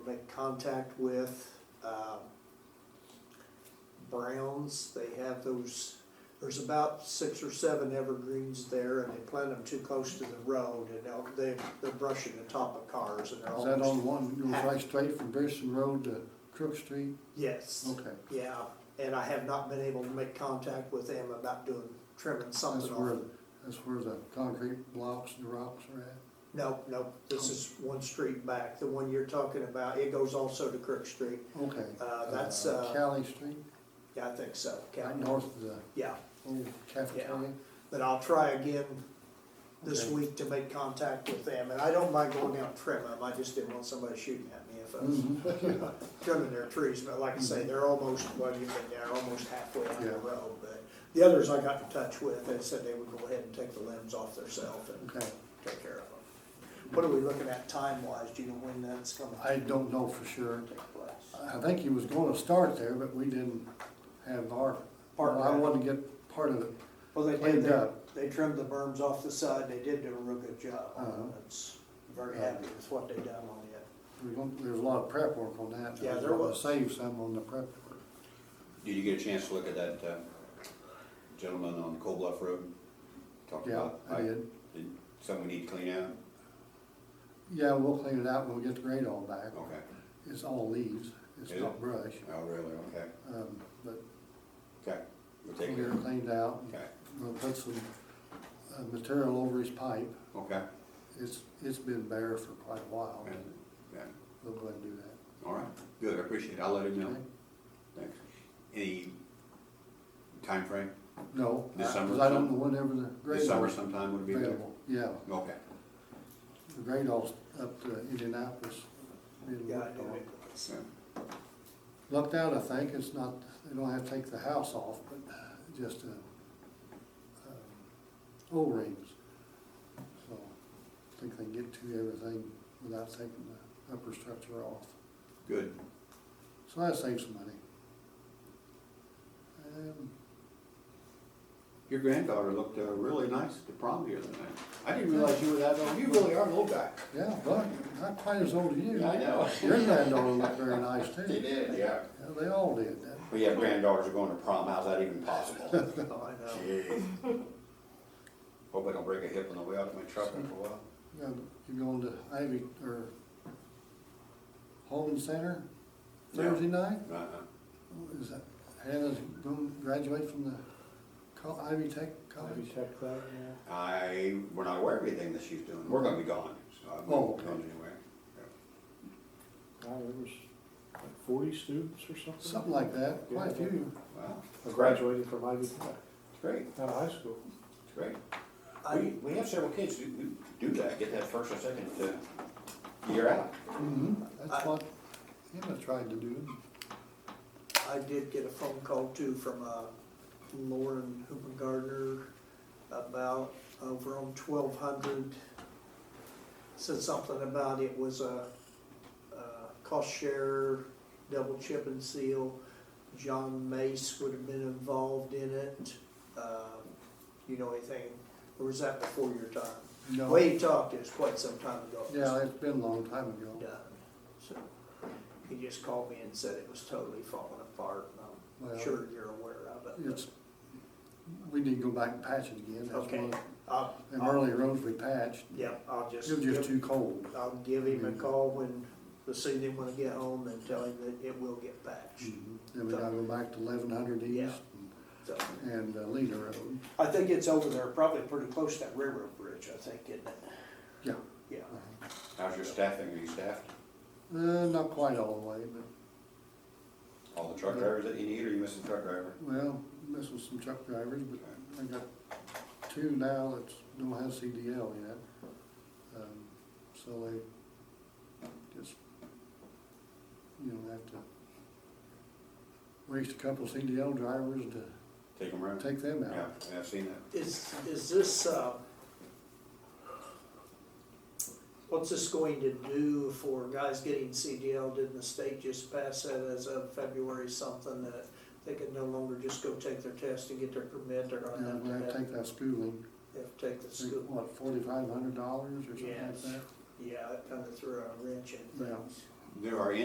make contact with, um, Browns, they have those, there's about six or seven evergreens there, and they plant them too close to the road, and they'll- they, they're brushing the top of cars, and they're Is that almost. on one, goes right straight from Pearson Road to Crook Street? Yes, Okay. yeah, and I have not been able to make contact with them about doing, trimming That's something where, off. that's where the concrete blocks and the rocks are at. No, no, this Oh. is one street back, the one you're talking about, it goes also to Crook Street, Okay. Uh, that's, uh, Cali Street, yeah, I think so, right Captain. north of the yeah. old cafeteria. But I'll try again this Okay. week to make contact with them, and I don't mind going out and trimming them, I just didn't want somebody shooting at me if I Mm-hmm. was trimming their trees, but like I say, they're almost, well, you've been there, almost halfway on the Yeah. road, but the others I got in touch with, they said they would go ahead and take the limbs off theirself and Okay. take care of them. What are we looking at time-wise, do you know when that's gonna I don't know for sure. take place? I think he was gonna start there, but we didn't have our, Part I of it. wanted to get part of it. Well, they did, cleaned they, up. they trimmed the berms off the side, they did do a real good job, on Uh-huh. it. It's very Yeah. happy with what they done on it. We're gonna- There was a lot of prep work on that. Yeah, We're there gonna was. Save some on the prep work. Did you get a chance to look at that uh, gentleman on Cold Bluff Road? Talked Yeah, about I did. Did- Something we need to clean out? Yeah, we'll clean it out when we get the grade all back. Okay. It's all leaves, it's Is not it? brush. Oh, really? Okay. Um, but Okay. We'll take clear, care of it. cleaned out, Okay. we'll put some uh, material over his pipe. Okay. It's, it's been bare for quite a while, Yeah. Yeah. we'll go ahead and do that. All right. Good. I appreciate it. I'll let him know. Okay. Thanks. Any time frame? No, This summer because I don't some- know whenever the This grade summer all's sometime would be good. available. Yeah, Okay. the grade all's up to Indianapolis. being Yeah, I worked know on. it was. Yeah. Lucked out, I think, it's not, they don't have to take the house off, but just, uh, um, O-rings. So, I think they can get to everything without taking the upper structure off. Good. So that saves some money. Um, Your granddaughter looked uh, really nice at the prom the other night. I didn't realize you were that old. You really are an old guy. Yeah, but not quite as old as you. I know. Your granddaughter looked very nice too. They did, yeah. Yeah, They all did, that. But yeah, granddaughters are going to prom, how's that even possible? I know. Jeez. Hope I don't break a hip on the way out of my truck in a while. Yeah, You're going to Ivy, or Holden Center Yeah. Thursday night? Uh-uh. Is that, Hannah's going to graduate from the col- Ivy Tech College? I, we're not aware of anything that she's doing, we're gonna be gone, so I'm Oh, not okay. going anywhere. God, there was like forty students or something. Something like that, quite a few. Wow, I graduated from Ivy Tech, it's great, out of high school. it's great. I, We, we have several kids who, who do that, get that first or second, uh, year out. Mhm, That's I- what Hannah tried to do. I did get a phone call too from, uh, Lauren Hooper Gardner about over on twelve hundred. Said something about it was a, uh, cost share, double chip and seal. John Mace would have been involved in it. Um, you know anything, or was that before your time? No. Way he talked is quite some time ago. Yeah, it's been a long time ago. done. So he just called me and said it was totally falling apart, and Well- I'm sure you're aware of it. It's, we need to go back and patch it again. That's Okay, one of I'll, them I'll, early roads we patched. yeah, I'll It just, was just give- too cold. I'll give him a call when, this evening when I get home and tell him that it will get patched. Mhm. Then we gotta go back to eleven hundred Yeah. east So, and uh, Leader Road. I think it's over there, probably pretty close to that railroad bridge, I think, isn't it? Yeah, Uh-huh. Yeah, How's your staffing, are you staffed? uh, not quite all the way, but, All the truck Mm-hmm. drivers that you need, or you missing a truck driver? well, this was some truck drivers, but I got two now that don't have CDL yet. Um, So they just, you know, have to waste a couple CDL drivers to Take them around? take them Yeah, out. yeah, I've seen that. is, is this, uh, what's this going to do for guys getting CDL? Didn't the state just pass that as of February something that they could no longer just go take their test and get their permit, they're gonna Yeah, have we to have to have, take that schooling, have to take the I think, school? what, forty-five hundred dollars or something like Yes. that? Yeah, that kinda threw a wrench in Yeah. things. There are